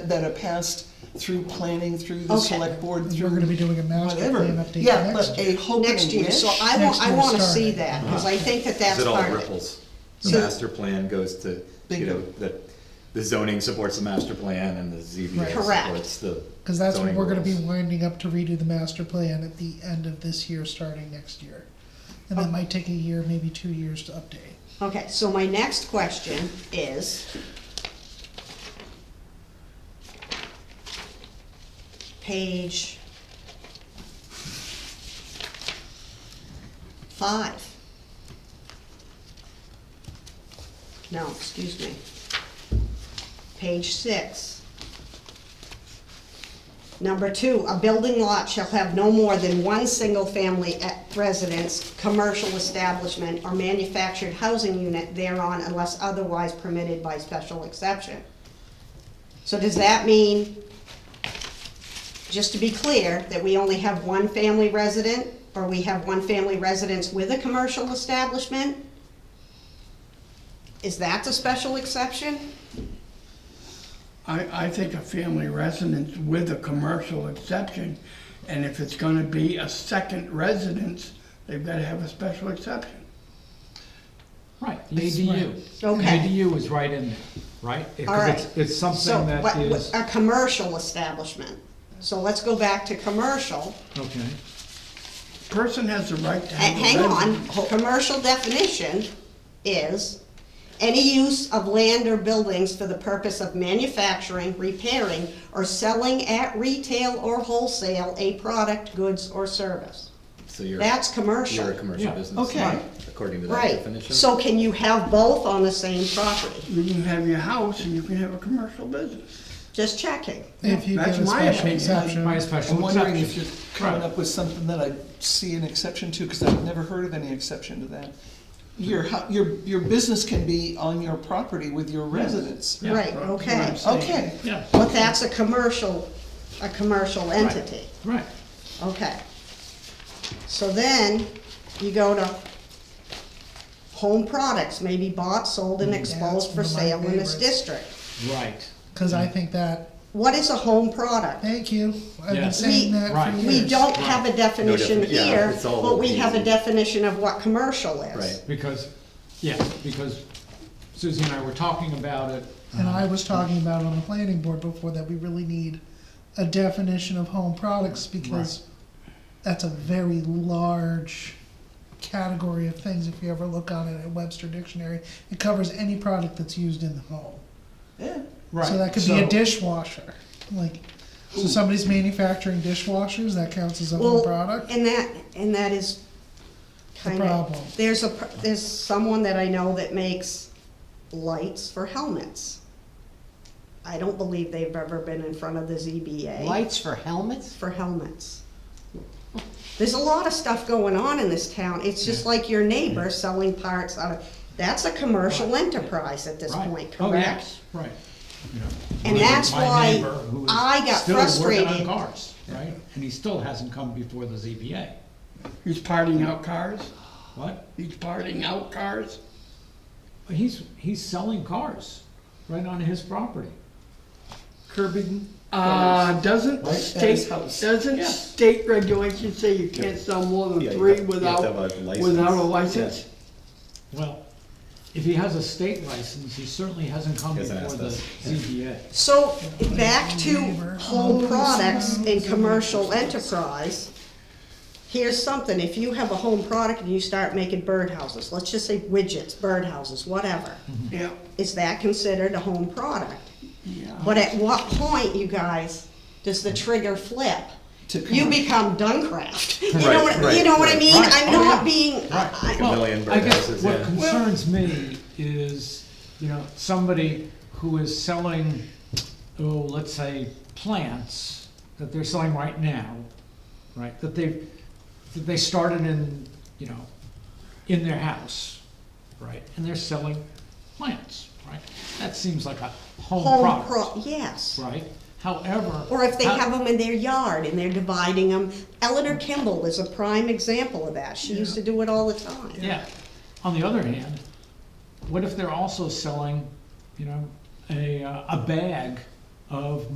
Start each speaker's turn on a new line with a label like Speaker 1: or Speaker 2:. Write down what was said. Speaker 1: that are passed through planning, through the
Speaker 2: Okay.
Speaker 1: select board,
Speaker 3: We're
Speaker 1: through
Speaker 3: gonna be doing a master
Speaker 1: whatever.
Speaker 3: plan update
Speaker 1: Yeah,
Speaker 3: next
Speaker 1: but
Speaker 3: year.
Speaker 1: a hope and
Speaker 2: next year,
Speaker 1: wish,
Speaker 2: so I want, I
Speaker 3: Next year
Speaker 2: wanna see
Speaker 3: starting.
Speaker 2: that, cause I think that
Speaker 4: Because
Speaker 2: that's
Speaker 4: it all
Speaker 2: part of it.
Speaker 4: ripples. The
Speaker 2: So-
Speaker 4: master plan goes to, you
Speaker 1: Bingo.
Speaker 4: know, the, the zoning supports the master plan and the
Speaker 3: Right.
Speaker 4: ZBA
Speaker 2: Correct.
Speaker 4: supports the.
Speaker 3: Cause that's when
Speaker 4: zoning
Speaker 3: we're gonna be
Speaker 4: rules.
Speaker 3: winding up to redo the master plan at the end of this year, starting next year. And that might take a year, maybe two years to update.
Speaker 2: Okay, so my next question is. Page. Five. No, excuse me. Page six. Number two, a building lot shall have no more than one single-family e- residence, commercial establishment, or manufactured housing unit thereon unless otherwise permitted by special exception. So does that mean, just to be clear, that we only have one family resident, or we have one family residence with a commercial establishment? Is that the special exception?
Speaker 5: I, I think a family residence with a commercial exception, and if it's gonna be a second residence, they've gotta have a special exception.
Speaker 6: Right,
Speaker 3: That's
Speaker 6: ADU.
Speaker 2: Okay.
Speaker 6: ADU is right in there, right?
Speaker 2: All
Speaker 6: Because
Speaker 2: right.
Speaker 6: it's, it's
Speaker 2: So,
Speaker 6: something
Speaker 2: what-
Speaker 6: that
Speaker 2: what-
Speaker 6: is,
Speaker 2: A commercial establishment. So let's go back to commercial.
Speaker 6: okay,
Speaker 5: Person has the right to
Speaker 2: A-
Speaker 5: have a
Speaker 2: Hang on,
Speaker 5: residence.
Speaker 2: commercial definition is any use of land or buildings for the purpose of manufacturing, repairing, or selling at retail or wholesale a product, goods, or service.
Speaker 4: So you're,
Speaker 2: That's commercial.
Speaker 4: you're a commercial
Speaker 6: Yeah,
Speaker 4: business.
Speaker 2: okay.
Speaker 4: right, According to that
Speaker 2: Right,
Speaker 4: definition.
Speaker 2: so can you have both on the same property?
Speaker 5: You can have your house and you can have a commercial business.
Speaker 2: Just checking.
Speaker 3: If you
Speaker 5: That's
Speaker 3: get a
Speaker 5: my
Speaker 3: special
Speaker 5: opinion.
Speaker 3: exception.
Speaker 6: my special
Speaker 1: I'm wondering if
Speaker 6: exception.
Speaker 1: you're coming up with something that I see an exception to, because I've never heard of any exception to that. Your, hou- your, your business can be on your property with your residents.
Speaker 6: Yeah,
Speaker 2: Right,
Speaker 5: That's what I'm
Speaker 2: okay.
Speaker 5: saying.
Speaker 1: Okay,
Speaker 6: Yeah,
Speaker 2: But that's a commercial, a commercial entity.
Speaker 6: right.
Speaker 2: Okay. So then, you go to home products, maybe bought, sold,
Speaker 4: Mm.
Speaker 2: and exposed for
Speaker 3: That's one of my
Speaker 2: sale in this
Speaker 3: favorites.
Speaker 2: district.
Speaker 6: Right.
Speaker 3: Cause I think that,
Speaker 2: What is a home product?
Speaker 3: thank you, I've
Speaker 6: Yeah.
Speaker 3: been saying
Speaker 2: We-
Speaker 3: that
Speaker 6: Right.
Speaker 3: for years.
Speaker 2: We don't have a definition
Speaker 4: defi- yeah,
Speaker 2: here,
Speaker 4: it's all
Speaker 2: but we have a
Speaker 4: easy.
Speaker 2: definition of what commercial is.
Speaker 4: Right.
Speaker 6: Because, yeah, because Susie and I were talking about it.
Speaker 3: And I was talking about on the planning board before that we really need a definition of home products because that's a very large category of things. If you ever look on it at Webster Dictionary, it covers any product that's used in the home.
Speaker 1: yeah.
Speaker 6: Right.
Speaker 3: So that could be a
Speaker 6: So-
Speaker 3: dishwasher, like, so somebody's manufacturing dishwashers, that counts as a home
Speaker 2: Well,
Speaker 3: product?
Speaker 2: And that, and that is
Speaker 3: The
Speaker 2: kind
Speaker 3: problem.
Speaker 2: of, there's a, pr- there's someone that I know that makes lights for helmets. I don't believe they've ever been in front of the ZBA.
Speaker 7: Lights for helmets?
Speaker 2: for helmets. There's a lot of stuff going on in this town, it's just like your neighbor selling parts out of, that's a commercial enterprise at this
Speaker 6: right.
Speaker 2: point,
Speaker 6: Oh,
Speaker 2: correct?
Speaker 6: yes, right. You know,
Speaker 2: And
Speaker 6: my-
Speaker 2: that's
Speaker 6: my
Speaker 2: why
Speaker 6: neighbor who is
Speaker 2: I got
Speaker 6: still working
Speaker 2: frustrated.
Speaker 6: on cars, right? And he still hasn't come before the ZBA.
Speaker 5: He's parting out cars,
Speaker 6: What?
Speaker 5: he's parting out cars.
Speaker 6: He's, he's selling cars right on his property. Curbing
Speaker 5: Uh, doesn't
Speaker 6: Right,
Speaker 1: that is
Speaker 5: state,
Speaker 1: house.
Speaker 5: doesn't
Speaker 6: Yeah.
Speaker 5: state regulations say you can't sell more
Speaker 4: Yeah,
Speaker 5: than
Speaker 4: you
Speaker 5: three
Speaker 4: have- you have
Speaker 5: without,
Speaker 4: to have a license.
Speaker 5: without a license?
Speaker 6: Well, if he has a state license, he certainly hasn't come
Speaker 4: He hasn't
Speaker 6: before the
Speaker 4: asked us.
Speaker 6: ZBA.
Speaker 2: So, back to home products and commercial enterprise. Here's something, if you have a home product and you start making birdhouses, let's just say widgets, birdhouses, whatever,
Speaker 5: Yeah,
Speaker 2: is that considered a home product?
Speaker 5: yeah.
Speaker 2: But at what point, you guys, does the trigger flip?
Speaker 1: To
Speaker 2: You
Speaker 1: commer-
Speaker 2: become Duncraft. You know
Speaker 4: Right,
Speaker 2: what, you
Speaker 4: right,
Speaker 2: know what I
Speaker 4: right,
Speaker 2: mean?
Speaker 6: right.
Speaker 2: I'm
Speaker 6: Oh,
Speaker 2: not
Speaker 6: yeah.
Speaker 2: being, I-
Speaker 4: Like a million
Speaker 6: Well, I guess
Speaker 4: birdhouses,
Speaker 6: What
Speaker 4: yeah.
Speaker 6: concerns me is, you know, somebody who is selling, oh, let's say, plants that they're selling right now, right, that they've, that they started in, you know, in their house, right, and they're selling plants, right? That seems like a home
Speaker 2: home
Speaker 6: product,
Speaker 2: pro, yes.
Speaker 6: right? However.
Speaker 2: Or if they
Speaker 6: how-
Speaker 2: have them in their yard and they're dividing them. Eleanor Kimball is a prime example of that. She used to do it all the time.
Speaker 6: Yeah. On the other hand, what if they're also selling, you know, a, uh, a bag of